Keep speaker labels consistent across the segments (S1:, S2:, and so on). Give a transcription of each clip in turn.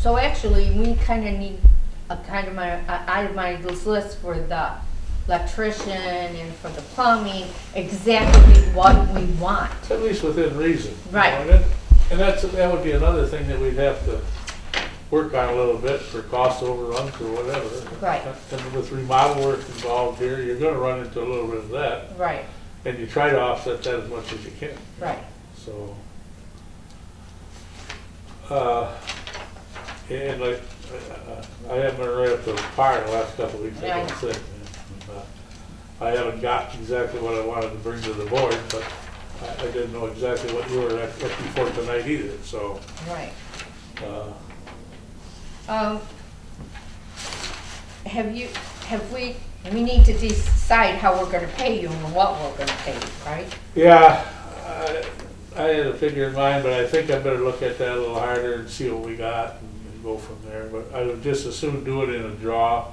S1: So actually, we kind of need a kind of my, itemized list for the electrician and for the plumbing, exactly what we want.
S2: At least within reason. you know,
S1: Right.
S2: and it- And that's, that would be another thing that we'd have to work on a little bit for cost overruns or whatever.
S1: Right.
S2: And with remodel work involved here, you're gonna run into a little bit of that,
S1: Right,
S2: and you try to offset that as much as you can,
S1: right.
S2: so. Uh, and like, uh, I haven't been right up to the par the last couple of weeks, I
S1: Yeah.
S2: don't think. and, uh, I haven't got exactly what I wanted to bring to the board, but I, I didn't know exactly what you were looking for tonight either, so,
S1: Right.
S2: uh,
S1: Um, have you, have we, we need to decide how we're gonna pay you and what we're gonna pay you, right?
S2: Yeah, I, I had a figure in mind, but I think I better look at that a little harder and see what we got and and go from there. But I would just as soon do it in a draw,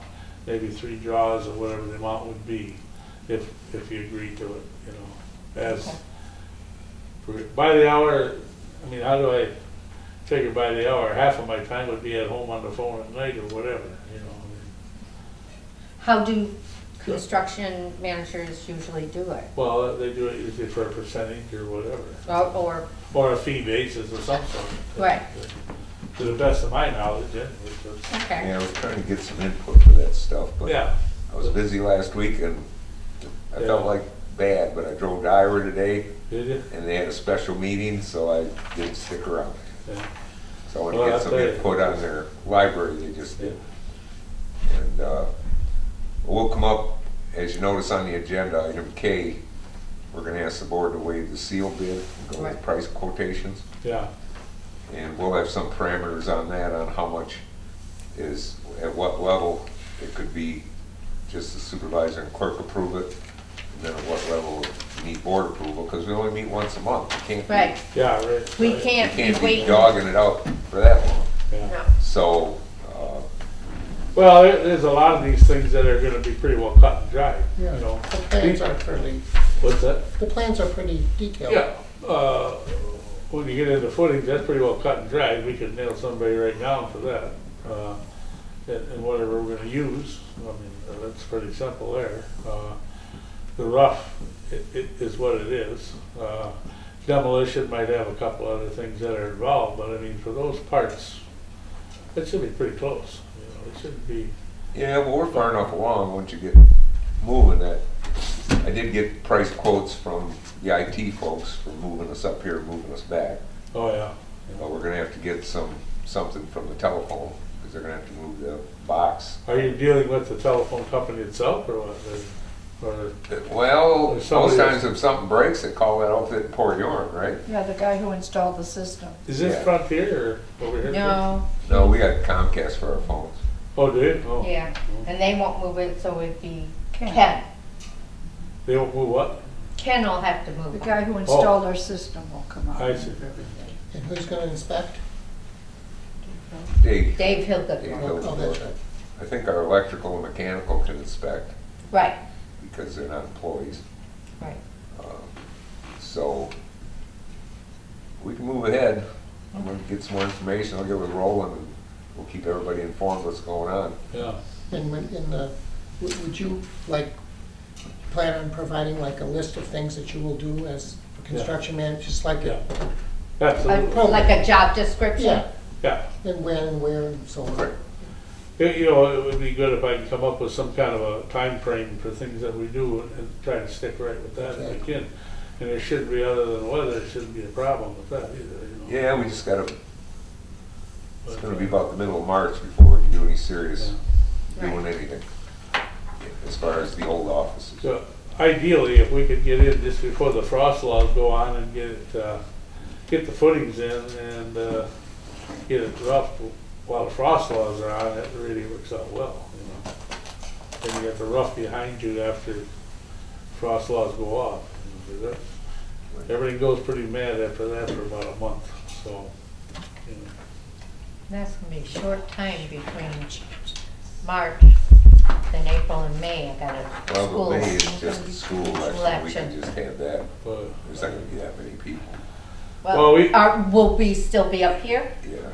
S2: maybe three draws or whatever the amount would be, if, if you agree to it, you know, as,
S1: Okay.
S2: for- by the hour, I mean, how do I figure by the hour? Half of my time would be at home on the phone at night or whatever, you know.
S1: How do construction managers usually do it?
S2: Well, they do it usually for a percentage or whatever.
S1: Or, or,
S2: or a fee basis of some sort.
S1: Right.
S2: To the best of my knowledge, anyway, but-
S1: okay,
S3: Yeah, I was trying to get some input for that stuff, but
S2: yeah,
S3: I was busy last week and I
S2: Yeah.
S3: felt like bad, but I drove to Ira today
S2: did you?
S3: and they had a special meeting, so I didn't stick around.
S2: Yeah.
S3: So I want
S2: Well,
S3: to
S2: I'll
S3: get some
S2: tell you.
S3: input on their library they just did. And uh, we'll come up, as you notice on the agenda, item K, we're going to ask the board to waive the seal bid, go with
S1: Right.
S3: price quotations.
S2: Yeah,
S3: And we'll have some parameters on that, on how much is, at what level it could be, just the supervisor and clerk approve it, and then at what level you need board approval, because we only meet once a month. We can't be-
S1: right.
S2: yeah, right.
S1: We
S2: right.
S3: We
S1: can't be
S3: can't be
S1: waiting.
S3: dogging it out for that long.
S2: Yeah.
S1: No.
S3: So, uh,
S2: Well, there, there's a lot of these things that are gonna be pretty well cut and dried, you
S4: Yeah.
S2: know.
S4: The plans are pretty,
S2: What's that?
S4: the plans are pretty detailed.
S2: Yeah, uh, when you get into footage, that's pretty well cut and dried, we could nail somebody right down for that. Uh, And, and whatever we're gonna use, I mean, uh, that's pretty simple there. Uh, The rough i- i- is what it is. Uh, Demolition might have a couple other things that are involved, but I mean, for those parts, it should be pretty close, you know, it shouldn't be,
S3: yeah, well, we're far enough along, once you get moving that, I did get price quotes from the IT folks for moving us up here, moving us back.
S2: oh yeah. you
S3: But
S2: know.
S3: we're gonna have to get some, something from the telephone, because they're gonna have to move the box.
S2: Are you dealing with the telephone company itself or what? Or- Or,
S3: Well,
S2: There's
S3: most
S2: somebody
S3: times
S2: that's-
S3: if something breaks, they call that outfit and pour yarn, right?
S5: Yeah, the guy who installed the system.
S2: is this
S3: Yeah.
S2: Frontier or over here?
S1: No,
S3: No, we got Comcast for our phones.
S2: Oh, do you? Oh.
S1: yeah,
S3: Mm-hmm.
S1: and they won't move it, so it'd be Ken.
S2: They won't move what?
S1: Ken will have to move
S5: The
S1: it.
S5: guy who installed our system will come out.
S2: Oh. I see.
S4: And who's gonna inspect?
S3: Dave,
S1: Dave Hilda,
S3: Dave
S4: Oh, oh, that's right.
S3: I think our electrical and mechanical can inspect
S1: right,
S3: because they're not employees.
S1: right,
S3: Um, So we can move ahead. I'm gonna get some more information. I'll get with Roland and we'll keep everybody informed what's going on.
S2: Yeah.
S4: And when, in the, would would you, like, plan on providing like a list of things that you will do as a construction man, just like,
S2: Yeah.
S4: it-
S2: Absolutely.
S4: I'd-
S1: Uh, like a job description.
S4: yeah,
S2: Yeah.
S4: and when and where and so on.
S3: Right.
S2: It- You know, it would be good if I could come up with some kind of a time frame for things that we do and- and try to stick right with that if I can. And it shouldn't be other than weather, it shouldn't be a problem with that either, you know.
S3: Yeah, we just gotta,
S2: But, uh,
S3: it's gonna be about the middle of March before we can do any serious,
S1: Right.
S3: doing anything. As far as the old offices.
S2: So ideally, if we could get in just before the frost laws go on and get it, uh, get the footings in and, uh, get it rough while the frost laws are on, it really works out well, you know. Then you got the rough behind you after frost laws go off. you know, 'cause that- Everything goes pretty mad after that for about a month, so, you know.
S1: That's gonna be a short time between March and April and May, I got a
S3: Well,
S1: school.
S3: the May is just the school election, we can
S1: Election.
S3: just have that,
S2: but-
S3: there's not gonna be that many people,
S2: Well,
S1: Well,
S2: we-
S1: are, will we still be up here?
S3: yeah.